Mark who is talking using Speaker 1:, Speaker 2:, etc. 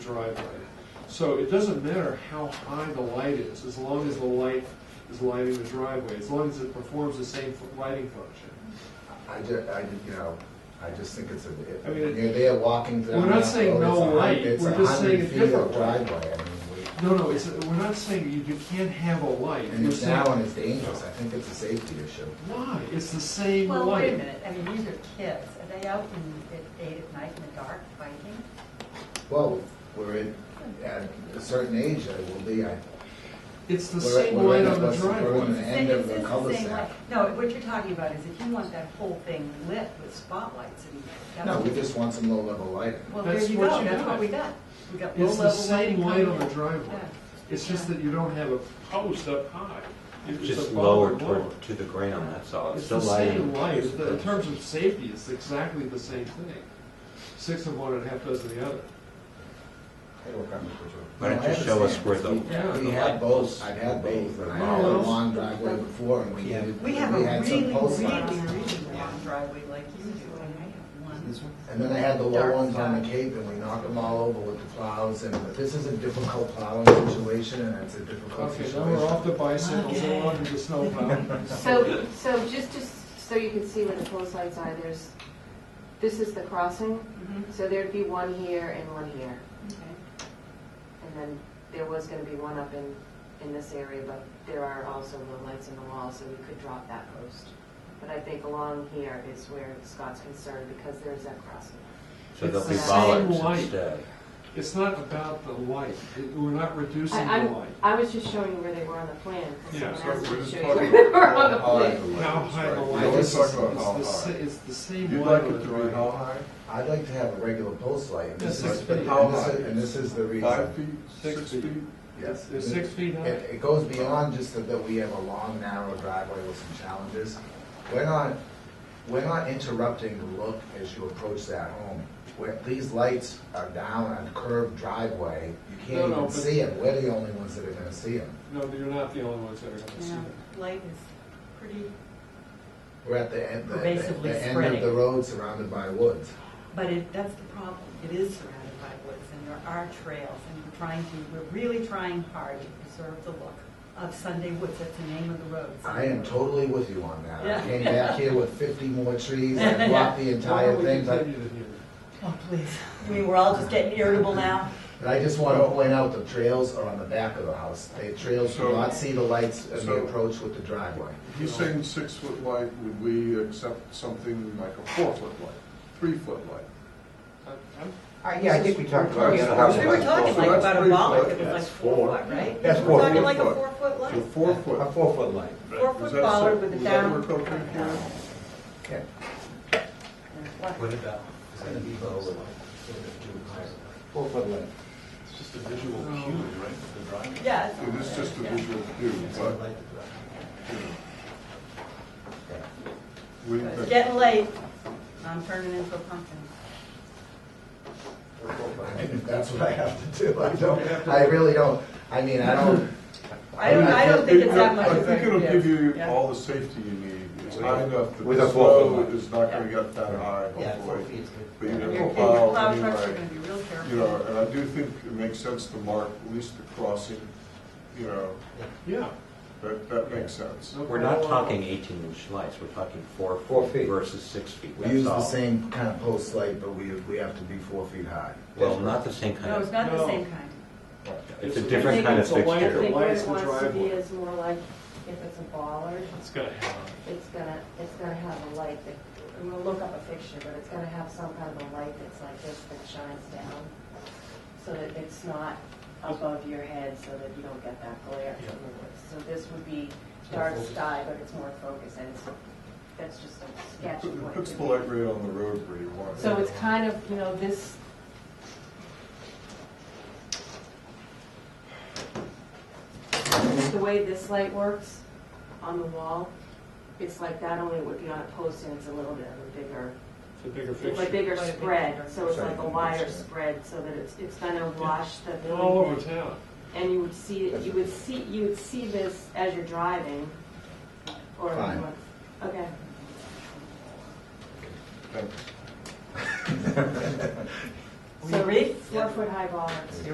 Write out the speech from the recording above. Speaker 1: driveway. So it doesn't matter how high the light is, as long as the light is lighting the driveway, as long as it performs the same fu- lighting function.
Speaker 2: I just, I, ju- you know, I just think it's a,
Speaker 1: I mean, it-
Speaker 2: it- you're there walking down.
Speaker 1: We're not
Speaker 2: that
Speaker 1: saying
Speaker 2: road,
Speaker 1: no
Speaker 2: it's a hun-
Speaker 1: light,
Speaker 2: it's
Speaker 1: we're
Speaker 2: a
Speaker 1: just saying
Speaker 2: hundred
Speaker 1: a
Speaker 2: feet of
Speaker 1: different light.
Speaker 2: Driveway, I mean, we,
Speaker 1: No, no, it's, we're not saying you, you can't have a light.
Speaker 2: and
Speaker 1: We're
Speaker 2: it's now, and
Speaker 1: saying,
Speaker 2: it's dangerous, I think it's a safety issue.
Speaker 1: why? It's the same light.
Speaker 3: Well, wait a minute, I mean, these are kids, are they out in, at eight at night in the dark fighting?
Speaker 2: Well, we're in, at a certain age, I will be, I,
Speaker 1: It's the
Speaker 2: We're-
Speaker 1: same
Speaker 2: we're
Speaker 1: light
Speaker 2: in
Speaker 1: on
Speaker 2: a-
Speaker 1: the
Speaker 2: let's- we're in
Speaker 1: driveway.
Speaker 2: a- The end
Speaker 3: It's-
Speaker 2: of the
Speaker 3: it's same
Speaker 2: cul-de-sac.
Speaker 3: light. No, what you're talking about is if you want that whole thing lit with spotlights and. that's-
Speaker 2: no, we just want some low-level lighting.
Speaker 3: Well, there
Speaker 1: That's
Speaker 3: you
Speaker 1: what
Speaker 3: go,
Speaker 1: you
Speaker 3: that's what
Speaker 1: got.
Speaker 3: we got. We got
Speaker 1: It's
Speaker 3: low-level
Speaker 1: the same light
Speaker 3: lighting
Speaker 1: on the
Speaker 3: coming in.
Speaker 1: driveway.
Speaker 3: Yeah.
Speaker 1: It's just that you don't have a post up high. It's
Speaker 4: Just
Speaker 1: above
Speaker 4: lower
Speaker 1: or
Speaker 4: toward, to the ground, that's all.
Speaker 1: It's
Speaker 4: the
Speaker 1: the same
Speaker 4: lighting.
Speaker 1: light. The- In terms of safety, it's exactly the same thing. Six of one and a half dozen of the other.
Speaker 2: Hey, look, I'm with you.
Speaker 4: Why don't
Speaker 2: No, I
Speaker 4: you show us
Speaker 2: understand.
Speaker 4: where the-
Speaker 2: We-
Speaker 1: Yeah,
Speaker 2: We
Speaker 4: the
Speaker 2: had
Speaker 4: light
Speaker 2: both,
Speaker 4: posts.
Speaker 2: I've had both, and I
Speaker 1: No,
Speaker 2: had a
Speaker 1: those-
Speaker 2: long driveway before, and we
Speaker 4: Yeah.
Speaker 2: needed, we
Speaker 3: We have a
Speaker 2: had
Speaker 3: really,
Speaker 2: some
Speaker 3: really,
Speaker 2: post lights.
Speaker 3: really long driveway like you do, and I have one.
Speaker 2: And then I had the low
Speaker 3: Dark
Speaker 2: ones on the
Speaker 3: sky.
Speaker 2: cape, and we knocked them all over with the plows, and this is a difficult plowing situation, and it's a difficult
Speaker 1: Okay, now we're off
Speaker 2: situation.
Speaker 1: the bicycles and onto the snowplow.
Speaker 5: So, so just, just so you can see where the post lights are, there's, this is the crossing,
Speaker 3: Mhm,
Speaker 5: so there'd be one here and one here.
Speaker 3: okay.
Speaker 5: And then there was gonna be one up in, in this area, but there are also the lights in the wall, so we could drop that post. But I think along here is where Scott's concerned, because there's that crossing.
Speaker 4: So there'll be
Speaker 5: It's the same
Speaker 4: bollards
Speaker 1: light.
Speaker 4: instead.
Speaker 1: It's not about the light. It- We're not reducing
Speaker 5: I,
Speaker 1: the
Speaker 5: I'm,
Speaker 1: light.
Speaker 5: I was just showing you where they were on the plan, because
Speaker 1: Yeah,
Speaker 5: someone
Speaker 6: so
Speaker 5: asked
Speaker 6: we're
Speaker 5: me to
Speaker 6: just
Speaker 5: show you
Speaker 6: talking
Speaker 5: where they were on the
Speaker 6: about how high
Speaker 5: plan.
Speaker 6: the light
Speaker 1: How high the light
Speaker 6: is, right?
Speaker 2: We're
Speaker 1: is,
Speaker 2: just
Speaker 1: it's
Speaker 6: talking about
Speaker 1: the
Speaker 6: how
Speaker 1: sa-
Speaker 6: high.
Speaker 1: it's the same
Speaker 6: You'd
Speaker 1: light
Speaker 6: like
Speaker 1: on
Speaker 6: it
Speaker 1: the
Speaker 6: to be how
Speaker 1: driveway.
Speaker 6: high?
Speaker 2: I'd like to have a regular post light, and
Speaker 1: Yeah,
Speaker 2: this
Speaker 1: six
Speaker 2: is,
Speaker 1: feet.
Speaker 2: and this
Speaker 6: How
Speaker 2: is-
Speaker 6: high?
Speaker 2: and this is the
Speaker 6: Five
Speaker 2: reason.
Speaker 6: feet,
Speaker 1: Six
Speaker 6: six feet?
Speaker 1: feet.
Speaker 2: Yes.
Speaker 1: They're six feet high.
Speaker 2: It, it goes beyond just that- that we have a long, narrow driveway with some challenges. We're not, we're not interrupting the look as you approach that home. Where, these lights are down on curved driveway, you
Speaker 1: No,
Speaker 2: can't
Speaker 1: no,
Speaker 2: even
Speaker 1: but-
Speaker 2: see them, we're the only ones that are gonna see them.
Speaker 1: No, you're not the only ones that are going to see
Speaker 3: Yeah,
Speaker 1: it.
Speaker 3: light is pretty,
Speaker 2: We're at the end, the, the-
Speaker 3: Pervasively
Speaker 2: the end of
Speaker 3: spreading.
Speaker 2: the road surrounded by woods.
Speaker 3: but it, that's the problem. It is surrounded by woods and there are trails and we're trying to, we're really trying hard to preserve the look of Sunday Woods. That's the name of the road.
Speaker 2: I am totally with you on that. I
Speaker 3: Yeah.
Speaker 2: came back here with fifty more trees, I blocked the
Speaker 1: Why
Speaker 2: entire
Speaker 1: don't we
Speaker 2: thing, but,
Speaker 1: continue to hear?
Speaker 3: Oh, please. I mean, we're all just getting irritable now.
Speaker 2: but I just wanna point out the trails are on the back of the house. The trails do
Speaker 6: So-
Speaker 2: not see the lights as they
Speaker 6: so-
Speaker 2: approach with the driveway.
Speaker 6: He's saying six foot light, would we accept something like a four foot light, three foot light?
Speaker 1: I'm- I'm-
Speaker 7: Yeah, I think we talked about the other
Speaker 6: That's-
Speaker 7: house.
Speaker 3: We were talking like about a bollar that was like
Speaker 7: That's
Speaker 3: four
Speaker 7: four.
Speaker 3: foot, right?
Speaker 7: That's
Speaker 3: We're
Speaker 7: four
Speaker 3: talking
Speaker 7: foot.
Speaker 3: like a four foot
Speaker 6: So
Speaker 3: light,
Speaker 6: four
Speaker 7: A
Speaker 6: foot.
Speaker 7: four-foot light.
Speaker 3: four
Speaker 6: Does
Speaker 3: foot
Speaker 6: that
Speaker 3: bollard
Speaker 6: suck-
Speaker 3: with a
Speaker 6: does that
Speaker 3: down.
Speaker 6: work okay for you?
Speaker 2: Okay.
Speaker 4: What about, is gonna be lower, sort of do higher?
Speaker 7: Four-foot light.
Speaker 8: It's just a visual
Speaker 1: No.
Speaker 8: cue, right, for the driving.
Speaker 3: Yeah. it's-
Speaker 6: It is just a visual cue,
Speaker 4: It's gonna
Speaker 6: but,
Speaker 4: light the driveway.
Speaker 6: you know. What do you
Speaker 3: It's
Speaker 6: think?
Speaker 3: getting late. I'm turning into a pumpkin.
Speaker 2: If that's what I have to do, I don't, I really don't, I mean, I don't,
Speaker 3: I don't, I don't think it's that much
Speaker 6: I
Speaker 3: of a.
Speaker 6: think it'll give you
Speaker 3: yeah.
Speaker 6: all the safety you need. It's high enough that
Speaker 7: With a
Speaker 6: the
Speaker 7: four-foot
Speaker 6: snow
Speaker 7: light.
Speaker 6: is not gonna get that high,
Speaker 4: Yeah, four feet
Speaker 6: hopefully.
Speaker 4: is
Speaker 6: But
Speaker 4: good.
Speaker 6: you
Speaker 3: Your
Speaker 6: know,
Speaker 3: kids,
Speaker 6: plow,
Speaker 3: plow
Speaker 6: I mean,
Speaker 3: trucks are gonna
Speaker 6: like,
Speaker 3: be real
Speaker 6: you know,
Speaker 3: careful.
Speaker 6: and I do think it makes sense to mark at least the crossing, you know,
Speaker 1: Yeah.
Speaker 6: that, that makes sense.
Speaker 1: no
Speaker 4: We're not
Speaker 1: problem.
Speaker 4: talking eighteen inch lights, we're talking four
Speaker 7: Four
Speaker 4: feet
Speaker 7: feet.
Speaker 4: versus six feet.
Speaker 2: we
Speaker 4: That's
Speaker 2: use the
Speaker 4: all.
Speaker 2: same kind of post light, but we, we have to be four feet high.
Speaker 4: Well, not the same
Speaker 3: No,
Speaker 4: kind
Speaker 3: it's
Speaker 4: of,
Speaker 3: not the
Speaker 1: No.
Speaker 3: same kind.
Speaker 4: it's a
Speaker 1: I
Speaker 4: different
Speaker 1: think
Speaker 4: kind of
Speaker 1: it's a light that
Speaker 5: I
Speaker 4: fixture.
Speaker 5: think where
Speaker 1: lights
Speaker 5: it
Speaker 1: the
Speaker 5: wants to be
Speaker 1: driveway.
Speaker 5: is more like, if it's a bollard,
Speaker 8: It's got to have.
Speaker 5: it's gonna, it's gonna have a light that, I'm gonna look up a picture, but it's gonna have some kind of a light that's like this that shines down, so that it's not above your head, so that you don't get that glare from the woods. So this would be dark sky, but it's more focused, and it's, that's just a sketch
Speaker 6: It
Speaker 5: point.
Speaker 6: puts
Speaker 5: to
Speaker 6: the
Speaker 5: me.
Speaker 6: light ray on the road where you want it.
Speaker 5: So it's kind of, you know, this, the way this light works on the wall, it's like that only it would be on a post and it's a little bit of a bigger,
Speaker 1: It's a bigger
Speaker 5: it's a
Speaker 1: picture.
Speaker 5: bigger
Speaker 3: Quite a bit
Speaker 5: spread,
Speaker 3: bigger.
Speaker 5: so it's
Speaker 2: Sorry,
Speaker 5: like a
Speaker 2: I'm
Speaker 5: wider
Speaker 2: sorry.
Speaker 5: spread so that it's, it's gonna wash the
Speaker 1: All over
Speaker 5: building.
Speaker 1: town.
Speaker 5: And you would see, it- you would see, you would see this as you're driving or.
Speaker 2: Fine.
Speaker 5: Okay.
Speaker 6: Thank
Speaker 5: So
Speaker 3: Read.
Speaker 5: four foot high bollards.